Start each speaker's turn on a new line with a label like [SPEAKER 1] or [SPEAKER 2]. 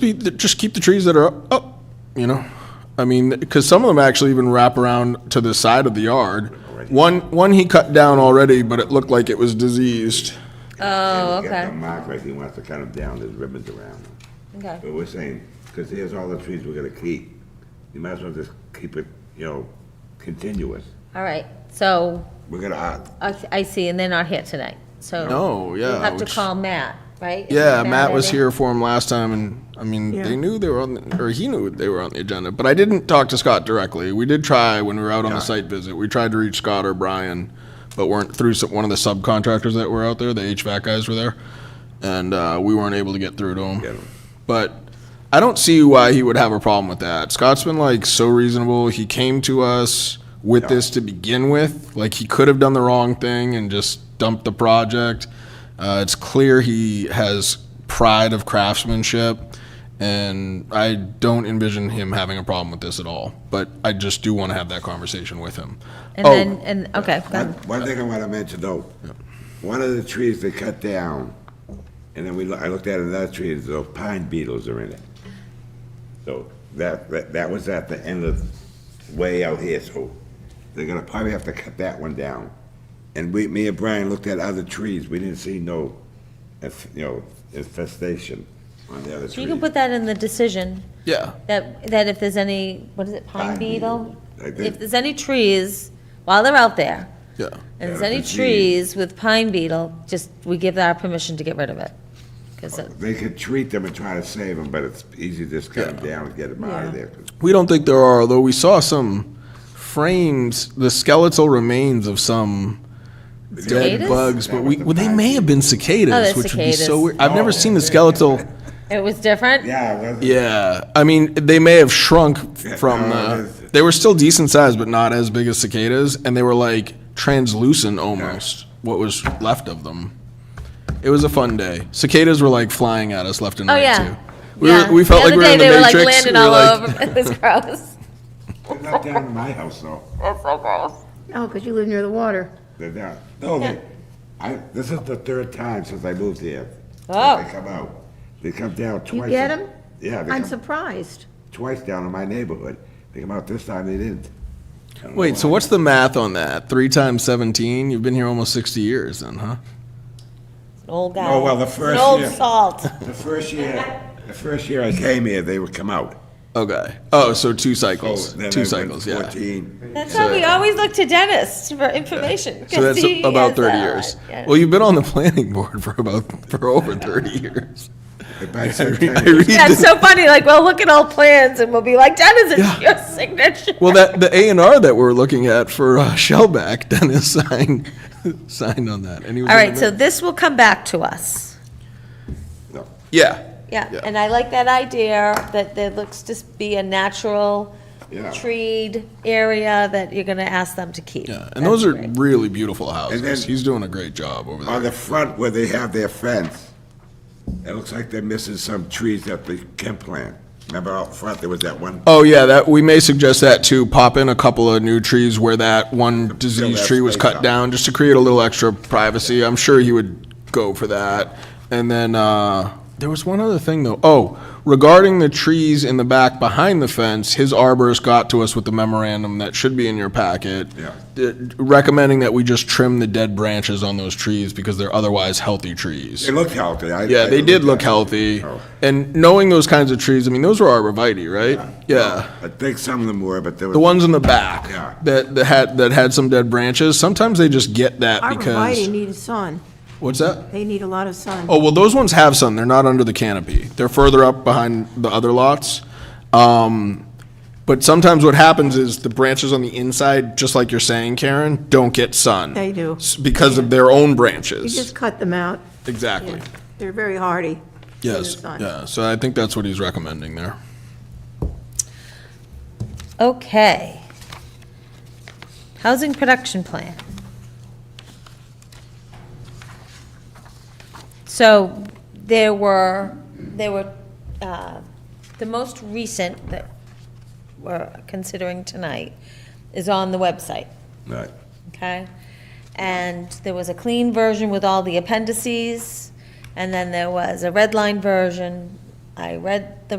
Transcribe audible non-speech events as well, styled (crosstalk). [SPEAKER 1] be, just keep the trees that are up, up, you know? I mean, because some of them actually even wrap around to the side of the yard. One, one he cut down already, but it looked like it was diseased.
[SPEAKER 2] He's
[SPEAKER 3] Oh,
[SPEAKER 2] got
[SPEAKER 3] okay.
[SPEAKER 2] the mark right, he wants to cut them down, there's ribbons around them.
[SPEAKER 3] Okay.
[SPEAKER 2] But we're saying, because here's all the trees we're gonna keep, you might as well just keep it, you know, continuous.
[SPEAKER 3] All right. So
[SPEAKER 2] We're gonna, uh,
[SPEAKER 3] I, I see, and they're not here tonight. So
[SPEAKER 1] No, yeah.
[SPEAKER 3] you'll have to
[SPEAKER 1] which-
[SPEAKER 3] call Matt, right? Is
[SPEAKER 1] Yeah, Matt
[SPEAKER 3] in
[SPEAKER 1] was
[SPEAKER 3] it?
[SPEAKER 1] here for him last time, and, I mean, they knew they were on, the- or he knew they were on the agenda, but I didn't talk to Scott directly. We did try when we were out on the site visit, we tried to reach Scott or Brian, but weren't through some, one of the subcontractors that were out there, the HVAC guys were there, and, uh, we weren't able to get through to
[SPEAKER 2] Get
[SPEAKER 1] him.
[SPEAKER 2] 'em.
[SPEAKER 1] But I don't see why he would have a problem with that. Scott's been like so reasonable. He came to us with this to begin with. Like he could have done the wrong thing and just dumped the project. Uh, it's clear he has pride of craftsmanship, and I don't envision him having a problem with this at all. But I just do want to have that conversation with him.
[SPEAKER 3] And
[SPEAKER 1] oh,
[SPEAKER 3] then, and, okay. go
[SPEAKER 2] one,
[SPEAKER 3] ahead.
[SPEAKER 2] one thing I wanna mention though, one of the trees they cut down, and then we, loo- I looked at another tree, and those pine beetles are in it. So that, that, that was at the end of, way out here, so they're gonna probably have to cut that one down. And we, me and Brian looked at other trees, we didn't see no, inf- you know, infestation on the other trees.
[SPEAKER 3] You can put that in the decision,
[SPEAKER 1] yeah,
[SPEAKER 3] that, that if there's any, what is it, pine
[SPEAKER 2] Pine
[SPEAKER 3] beetle?
[SPEAKER 2] beetle, I think.
[SPEAKER 3] If there's any trees, while they're out there,
[SPEAKER 1] yeah.
[SPEAKER 3] and there's
[SPEAKER 2] Yeah,
[SPEAKER 3] any
[SPEAKER 2] disease.
[SPEAKER 3] trees with pine beetle, just, we give our permission to get rid of it. 'Cause it-
[SPEAKER 2] They could treat them and try to save them, but it's easy to just cut them down and get them out of
[SPEAKER 3] Yeah.
[SPEAKER 2] there. 'cause
[SPEAKER 1] We don't think there are, though we saw some frames, the skeletal remains of some dead
[SPEAKER 3] Cicadas?
[SPEAKER 1] bugs, but we,
[SPEAKER 2] That was the
[SPEAKER 1] well, they
[SPEAKER 2] bad
[SPEAKER 1] may have been
[SPEAKER 3] Oh,
[SPEAKER 1] cicadas,
[SPEAKER 3] they're
[SPEAKER 1] which would be so
[SPEAKER 3] cicadas.
[SPEAKER 1] weird. I've never seen the skeletal.
[SPEAKER 3] it was different?
[SPEAKER 2] Yeah, it wasn't.
[SPEAKER 1] Yeah, I mean, they may have shrunk from
[SPEAKER 2] no,
[SPEAKER 1] the,
[SPEAKER 2] it's-
[SPEAKER 1] they were still decent size, but not as big as cicadas, and they were like translucent almost, what was left of them. It was a fun day. Cicadas were like flying at us left and
[SPEAKER 3] Oh,
[SPEAKER 1] right
[SPEAKER 3] yeah.
[SPEAKER 1] too. We
[SPEAKER 3] Yeah.
[SPEAKER 1] were, we felt like we
[SPEAKER 3] other
[SPEAKER 1] were
[SPEAKER 3] day
[SPEAKER 1] in the
[SPEAKER 3] they were, like,
[SPEAKER 1] Matrix.
[SPEAKER 3] landing
[SPEAKER 1] We were
[SPEAKER 3] all
[SPEAKER 1] like-
[SPEAKER 3] over. (laughs) It
[SPEAKER 1] (laughs)
[SPEAKER 3] was gross.
[SPEAKER 2] They're not down in my house, though.
[SPEAKER 3] That's so gross.
[SPEAKER 4] Oh, because you live near the water.
[SPEAKER 2] They're down. No, they, I, this is the third time since I moved here. that
[SPEAKER 3] Oh.
[SPEAKER 2] They come out. They come down twice.
[SPEAKER 4] get 'em?
[SPEAKER 2] Yeah, they
[SPEAKER 4] I'm
[SPEAKER 2] come
[SPEAKER 4] surprised.
[SPEAKER 2] twice down in my neighborhood. They come out this time, they didn't. I don't know
[SPEAKER 1] Wait, so
[SPEAKER 2] why.
[SPEAKER 1] what's the math on that? Three times 17? You've been here almost 60 years then, huh?
[SPEAKER 3] An old guy.
[SPEAKER 2] Oh, well, the
[SPEAKER 3] It's an
[SPEAKER 2] first
[SPEAKER 3] old
[SPEAKER 2] year. (laughs)
[SPEAKER 3] salt.
[SPEAKER 2] The first year, the first year I came here, they would come out.
[SPEAKER 1] Okay. Oh, so two
[SPEAKER 2] So
[SPEAKER 1] cycles.
[SPEAKER 2] then
[SPEAKER 1] two
[SPEAKER 2] I went
[SPEAKER 1] cycles, yeah.
[SPEAKER 2] Fourteen.
[SPEAKER 3] That's why we always look to Dennis for information.
[SPEAKER 1] So that's
[SPEAKER 3] 'cause he
[SPEAKER 1] about
[SPEAKER 3] has
[SPEAKER 1] 30
[SPEAKER 3] that.
[SPEAKER 1] years.
[SPEAKER 3] uh, Yeah.
[SPEAKER 1] Well, you've been on the planning board for about for over 30
[SPEAKER 2] (laughs)
[SPEAKER 1] years. (laughs)
[SPEAKER 2] But
[SPEAKER 1] I
[SPEAKER 2] by
[SPEAKER 1] read
[SPEAKER 2] September-
[SPEAKER 3] Yeah,
[SPEAKER 1] this-
[SPEAKER 3] it's so funny, like, well, look at all plans, and we'll be like, Dennis,
[SPEAKER 1] Yeah.
[SPEAKER 3] it's your signature.
[SPEAKER 1] Well, that the A and R that we're looking at for uh, Shellback, (laughs) Dennis signed signed on that. And he was
[SPEAKER 3] All
[SPEAKER 1] in
[SPEAKER 3] right,
[SPEAKER 1] the
[SPEAKER 3] so
[SPEAKER 1] mi-
[SPEAKER 3] this will come back to us.
[SPEAKER 2] No.
[SPEAKER 1] yeah,
[SPEAKER 3] Yeah,
[SPEAKER 1] Yeah.
[SPEAKER 3] and I like that idea, that there looks to be a natural
[SPEAKER 2] Yeah.
[SPEAKER 3] treed area that you're gonna ask them to keep.
[SPEAKER 1] yeah, and those
[SPEAKER 3] That's
[SPEAKER 1] are
[SPEAKER 3] great.
[SPEAKER 1] really beautiful houses.
[SPEAKER 2] then-
[SPEAKER 1] He's doing a great job over there.
[SPEAKER 2] On the front where they have their fence, it looks like they're missing some trees that they can plant. Remember out front, there was that one,
[SPEAKER 1] Oh yeah, that we may suggest that too. Pop in a couple of new trees where that one disease
[SPEAKER 2] that
[SPEAKER 1] tree was
[SPEAKER 2] space
[SPEAKER 1] cut
[SPEAKER 2] out.
[SPEAKER 1] down, just to create a little extra privacy. I'm sure he would go for that. And then uh, there was one other thing though. Oh, regarding the trees in the back behind the fence, his arborist got to us with the memorandum that should be in your packet.
[SPEAKER 2] Yeah.
[SPEAKER 1] d- recommending that we just trim the dead branches on those trees because they're otherwise healthy trees.
[SPEAKER 2] they looked healthy. I-
[SPEAKER 1] Yeah,
[SPEAKER 2] I
[SPEAKER 1] they did
[SPEAKER 2] at
[SPEAKER 1] look
[SPEAKER 2] it.
[SPEAKER 1] healthy.
[SPEAKER 2] Oh.
[SPEAKER 1] And knowing those kinds of trees, I mean, those were arborvitae, right? Yeah.
[SPEAKER 2] I think some of them were, but there
[SPEAKER 1] The
[SPEAKER 2] was,
[SPEAKER 1] ones in the back
[SPEAKER 2] Yeah.
[SPEAKER 1] that, that had, that had some dead branches, sometimes they just get that
[SPEAKER 4] Arborvitae
[SPEAKER 1] because,
[SPEAKER 4] need sun.
[SPEAKER 1] what's that?
[SPEAKER 4] They need a lot of sun.
[SPEAKER 1] Oh, well, those ones have sun. They're not under the canopy. They're further up behind the other lots. Um, but sometimes what happens is the branches on the inside, just like you're saying, Karen, don't get sun.
[SPEAKER 4] They do.
[SPEAKER 1] S- Because of their own
[SPEAKER 4] You just
[SPEAKER 1] branches.
[SPEAKER 4] cut them out.
[SPEAKER 1] Exactly.
[SPEAKER 4] They're very hardy. in the
[SPEAKER 1] Yes,
[SPEAKER 4] sun.
[SPEAKER 1] yeah. So I think that's what he's recommending there.
[SPEAKER 3] Okay. Housing production plan. So there were, there were, uh, the most recent that we're considering tonight is on the website,
[SPEAKER 2] Right.
[SPEAKER 3] okay? And there was a clean version with all the appendices, and then there was a red line version I read the